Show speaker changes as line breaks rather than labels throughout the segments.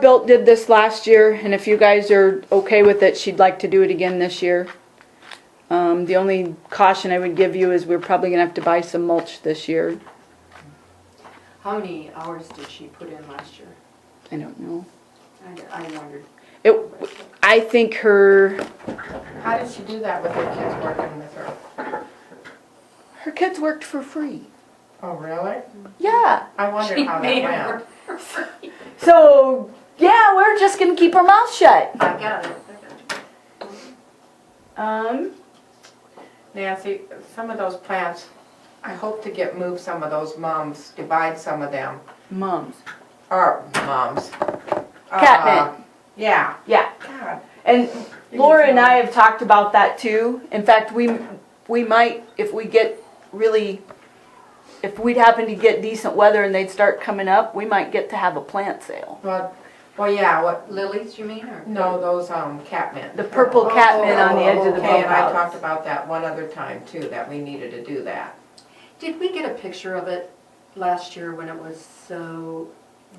Built did this last year, and if you guys are okay with it, she'd like to do it again this year. Um, the only caution I would give you is we're probably gonna have to buy some mulch this year.
How many hours did she put in last year?
I don't know.
I, I wondered.
It, I think her,
How did she do that with her kids working with her?
her kids worked for free.
Oh, really?
Yeah.
I wondered how that went.
So, yeah, we're just gonna keep our mouth shut.
I got it.
Um,
Nancy, some of those plants, I hope to get moved some of those mums, divide some of them,
moms.
or mums. Uh,
Catnip.
Yeah.
Yeah,
God.
and Laura and I have talked about that too. In fact, we, we might, if we get really, if we'd happen to get decent weather and they'd start coming up, we might get to have a plant sale.
Well, well, yeah, what,
Lilies, you mean, or?
no, those, um, catnip.
The purple catmint on the edge of the
Okay,
bump
and I talked
outs.
about that one other time too, that we needed to do that.
Did we get a picture of it last year when it was so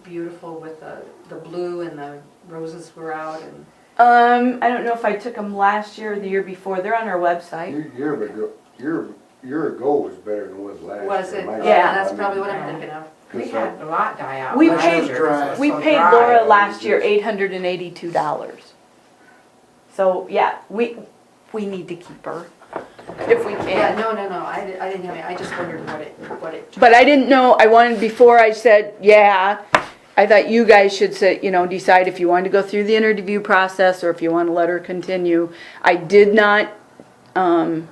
beautiful with the, the blue and the roses were out and?
Um, I don't know if I took them last year or the year before. They're on our website.
Your Year ago, year, year ago was better than it was last year.
Was it? Oh,
my
Yeah,
opinion.
that's
I
probably
mean,
what I'm thinking of.
We
'cause
had a lot die out.
We
last
paid-
year 'cause it was
We
so
paid
dry.
Laura last year eight hundred and eighty-two dollars. So, yeah, we, we need to keep her if we
Yeah,
can.
no, no, no, I, di- I didn't have any, I just wondered what it, what it.
But I didn't know, I wanted, before I said, yeah, I thought you guys should sit, you know, decide if you wanted to go through the interview process or if you want to let her continue. I did not, um,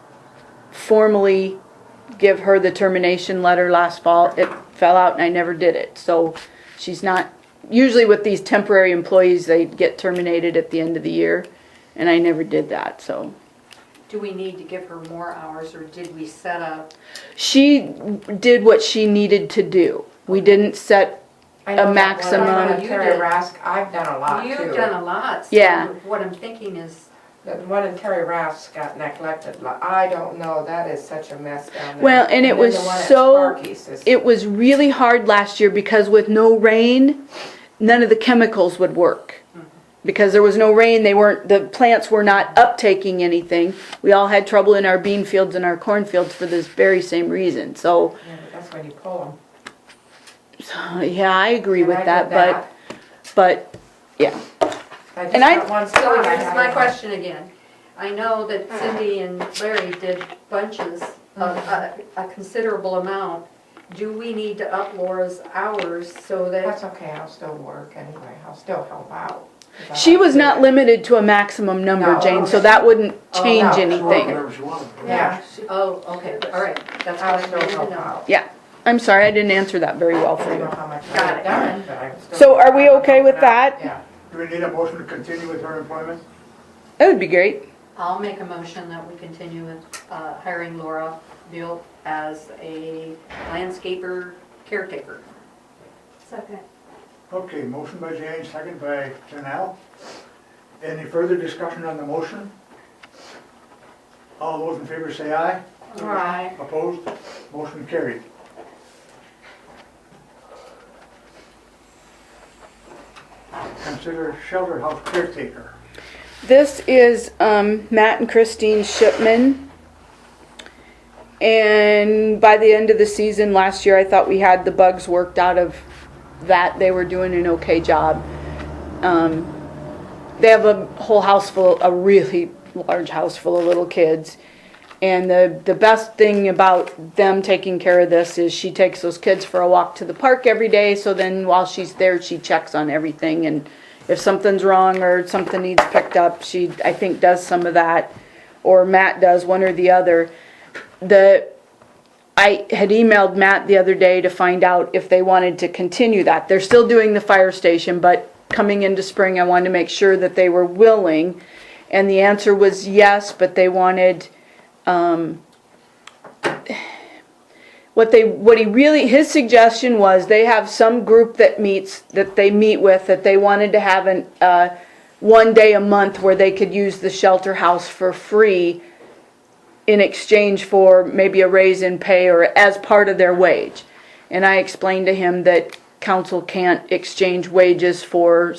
formally give her the termination letter last fall. It fell out and I never did it, so she's not, usually with these temporary employees, they get terminated at the end of the year. And I never did that, so.
Do we need to give her more hours or did we set up?
She did what she needed to do. We didn't set
I know
a
that one
maximum.
time
You
Terry
did.
Rask, I've done a lot
You've
too.
done a lot. so
Yeah.
What I'm thinking is,
The one in Terry Rask got neglected. Like, I don't know, that is such a mess down there.
Well, and it
then
was
the one at
so-
Sparky's is-
It was really hard last year because with no rain, none of the chemicals would work. Because there was no rain, they weren't, the plants were not uptaking anything. We all had trouble in our bean fields and our cornfields for this very same reason, so,
Yeah, but That's when you pull them.
so, yeah, I agree with
And
that,
I did
but, but, yeah.
that.
and
I
I-
just got one
so
spot. I
here's
had
my
it.
question again. I know that Cindy and Larry did bunches of a, a considerable amount. Do we need to up Laura's hours so that?
That's okay, I'll still work anyway, I'll still help out. 'Cause I
She
like
was
to do
not
it.
limited to a maximum number,
No,
Jane, so
okay.
that wouldn't change
no,
She worked
anything.
whenever she wanted.
Yeah,
Oh, okay, all right, that's
I'll
what I
still
needed to
help
know.
out.
Yeah, I'm sorry, I didn't answer that very well
I
for
don't know
you.
how much
Got
I've
it.
done, but I'm still.
So are we okay with
helping out.
that?
Yeah.
Do we need a motion to continue with her employment?
That would be great.
I'll make a motion that we continue with uh, hiring Laura Built as a landscaper caretaker. Second.
Okay, motion by Jane, second by Janelle. Any further discussion on the motion? All those in favor say aye.
Aye.
Opposed? Motion carried. Consider shelter house caretaker.
This is um, Matt and Christine Shipman. And by the end of the season last year, I thought we had the bugs worked out of that. They were doing an okay job. Um, they have a whole house full, a really large house full of little kids. And the, the best thing about them taking care of this is she takes those kids for a walk to the park every day. So then while she's there, she checks on everything. And if something's wrong or something needs picked up, she, I think, does some of that. Or Matt does, one or the other. The, I had emailed Matt the other day to find out if they wanted to continue that. They're still doing the fire station, but coming into spring, I wanted to make sure that they were willing. And the answer was yes, but they wanted, um, what they, what he really, his suggestion was they have some group that meets, that they meet with, that they wanted to have an, uh, one day a month where they could use the shelter house for free in exchange for maybe a raise in pay or as part of their wage. And I explained to him that council can't exchange wages for